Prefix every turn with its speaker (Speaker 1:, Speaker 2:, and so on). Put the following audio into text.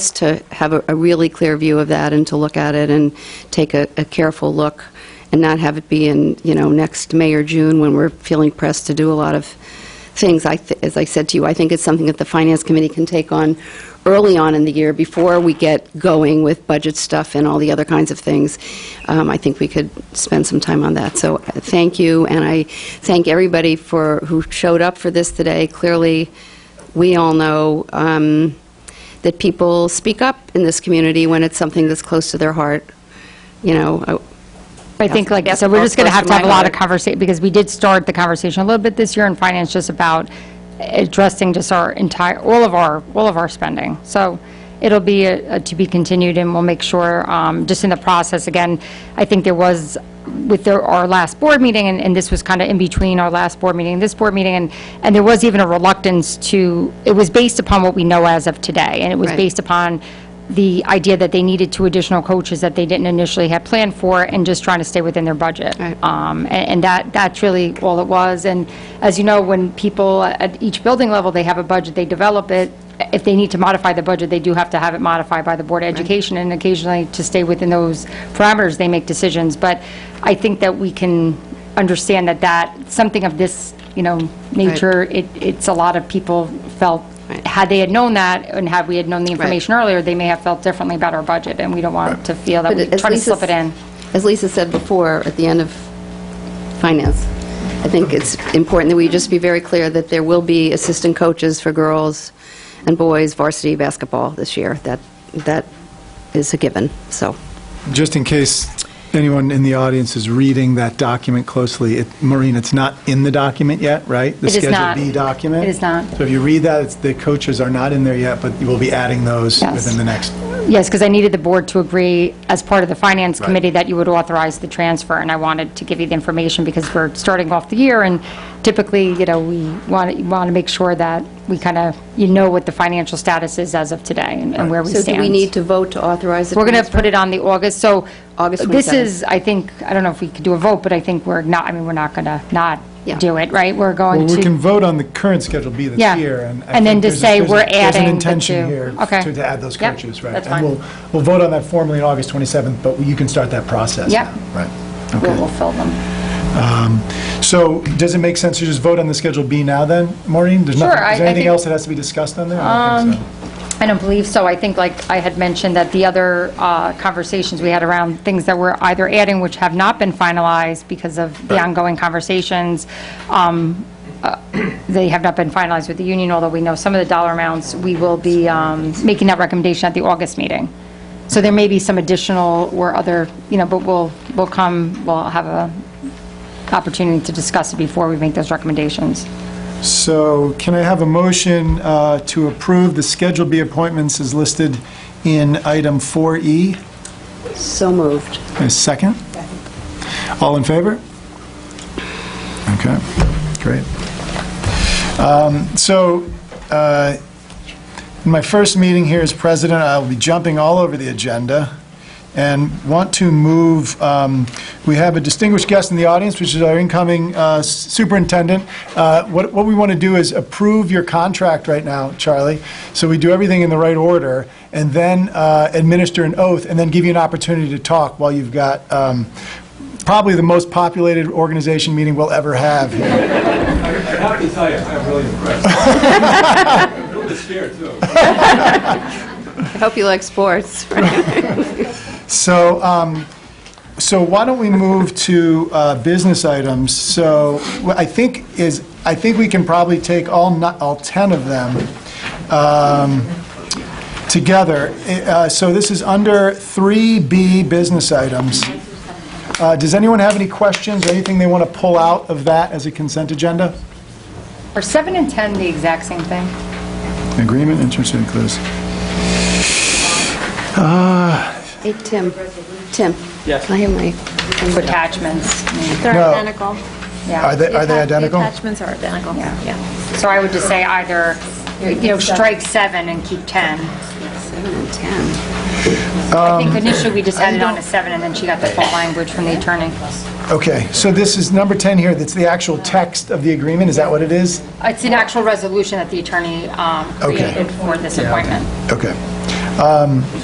Speaker 1: it's to have a a really clear view of that and to look at it and take a a careful look and not have it be in, you know, next May or June when we're feeling pressed to do a lot of things. I th- As I said to you, I think it's something that the Finance Committee can take on early on in the year before we get going with budget stuff and all the other kinds of things. Um, I think we could spend some time on that. So uh, thank you, and I thank everybody for, who showed up for this today. Clearly, we all know um, that people speak up in this community when it's something that's close to their heart. You know, I-
Speaker 2: I think, like I said, we're just going to have to have a lot of conversation, because we did start the conversation a little bit this year in finance, just about addressing just our entire, all of our, all of our spending. So it'll be uh, to be continued, and we'll make sure, um, just in the process, again, I think there was, with their- our last board meeting, and- and this was kind of in between our last board meeting and this board meeting, and, and there was even a reluctance to, it was based upon what we know as of today, and it was
Speaker 1: Right.
Speaker 2: based upon the idea that they needed two additional coaches that they didn't initially have planned for, and just trying to stay within their budget.
Speaker 1: Right.
Speaker 2: Um, a- And that, that's really all it was. And as you know, when people at each building level, they have a budget, they develop it. If they need to modify the budget, they do have to have it modified by the Board of Education, and occasionally, to stay within those parameters, they make decisions. But I think that we can understand that that, something of this, you know, nature, it, it's a lot of people felt,
Speaker 1: Right.
Speaker 2: had they had known that, and had we had known the
Speaker 1: Right.
Speaker 2: information earlier, they may have felt differently about our budget, and we don't want to feel that we
Speaker 1: But as
Speaker 2: try to
Speaker 1: Lisa
Speaker 2: slip it
Speaker 1: s-
Speaker 2: in.
Speaker 1: As Lisa said before, at the end of finance, I think it's important that we just be very clear that there will be assistant coaches for girls and boys varsity basketball this year. That, that is a given, so.
Speaker 3: Just in case anyone in the audience is reading that document closely, it- Maureen, it's not in the document yet, right?
Speaker 2: It is not.
Speaker 3: The Schedule B document?
Speaker 2: It is not.
Speaker 3: So if you read that, it's- the coaches are not in there yet, but you will be adding those
Speaker 2: Yes.
Speaker 3: within the next.
Speaker 2: Yes, because I needed the board to agree as part of the finance
Speaker 3: Right.
Speaker 2: committee that you would authorize the transfer, and I wanted to give you the information because we're starting off the year, and typically, you know, we want, want to make sure that we kind of, you know what the financial status is as of today and and where we
Speaker 1: So
Speaker 2: stand.
Speaker 1: do we need to vote to authorize the
Speaker 2: We're going to
Speaker 1: transfer?
Speaker 2: put it on the August, so.
Speaker 1: August
Speaker 2: This
Speaker 1: 27th.
Speaker 2: is, I think, I don't know if we could do a vote, but I think we're not, I mean, we're not going to not
Speaker 1: Yeah.
Speaker 2: do it, right? We're going
Speaker 3: Well,
Speaker 2: to.
Speaker 3: we can vote on the current Schedule B
Speaker 2: Yeah.
Speaker 3: that's here. I
Speaker 2: And then
Speaker 3: think
Speaker 2: to
Speaker 3: there's a-
Speaker 2: say
Speaker 3: there's a-
Speaker 2: we're adding
Speaker 3: There's
Speaker 2: the
Speaker 3: an intention
Speaker 2: two.
Speaker 3: here
Speaker 2: Okay.
Speaker 3: to to add those
Speaker 2: Yep,
Speaker 3: coaches, right?
Speaker 2: that's fine.
Speaker 3: And we'll, we'll vote on that formally on August 27th, but you can start that process
Speaker 2: Yep.
Speaker 3: now, right?
Speaker 2: We'll
Speaker 3: Okay.
Speaker 2: we'll fill them.
Speaker 3: So does it make sense to just vote on the Schedule B now then, Maureen? There's
Speaker 2: Sure,
Speaker 3: nothing-
Speaker 2: I-
Speaker 3: Is
Speaker 2: I
Speaker 3: there anything
Speaker 2: think- Um,
Speaker 3: else that has to be discussed on there? I don't think so.
Speaker 2: I don't believe so. I think, like I had mentioned, that the other uh, conversations we had around things that were either adding, which have not been finalized because of the
Speaker 3: Right.
Speaker 2: ongoing conversations, um, uh, they have not been finalized with the union, although we know some of the dollar amounts, we will be um, making that recommendation at the August meeting. So there may be some additional or other, you know, but we'll, we'll come, we'll have a opportunity to discuss it before we make those recommendations.
Speaker 3: So can I have a motion uh, to approve the Schedule B appointments as listed in item E? 4E?
Speaker 1: So moved.
Speaker 3: A second? All in favor? Okay, great. Um, So uh, in my first meeting here as president, I'll be jumping all over the agenda and want to move, um, we have a distinguished guest in the audience, which is our incoming uh, superintendent. Uh, What what we want to do is approve your contract right now, Charlie, so we do everything in the right order, and then uh, administer an oath, and then give you an opportunity to talk while you've got um, probably the most populated organization meeting we'll ever have here.
Speaker 4: I have to tell you, I'm really impressed. A little bit scared, too.
Speaker 1: I hope you like sports.
Speaker 3: So, um, so why don't we move to uh, business items? So what I think is, I think we can probably take all, ni- all 10 of them um, together. Uh, So this is under 3B business items. Uh, Does anyone have any questions or anything they want to pull out of that as a consent agenda?
Speaker 2: Are 7 and 10 the exact same thing?
Speaker 3: Agreement, interest, and close.
Speaker 1: Hey, Tim, Tim. Yes. I have my,
Speaker 2: Attachments.
Speaker 5: They're
Speaker 3: No.
Speaker 5: identical.
Speaker 3: Are they, are
Speaker 5: The
Speaker 3: they
Speaker 5: atta-
Speaker 3: identical?
Speaker 5: The attachments are identical, yeah.
Speaker 2: So I would just say either, you know, strike seven and keep 10.
Speaker 1: seven and 10.
Speaker 2: I think initially we just had it on a seven, and then she got the full language from the attorney.
Speaker 3: Okay, so this is number 10 here, that's the actual text of the agreement, is that what it is?
Speaker 2: It's an actual resolution that the attorney um,
Speaker 3: Okay.
Speaker 2: created for this appointment.
Speaker 3: Okay.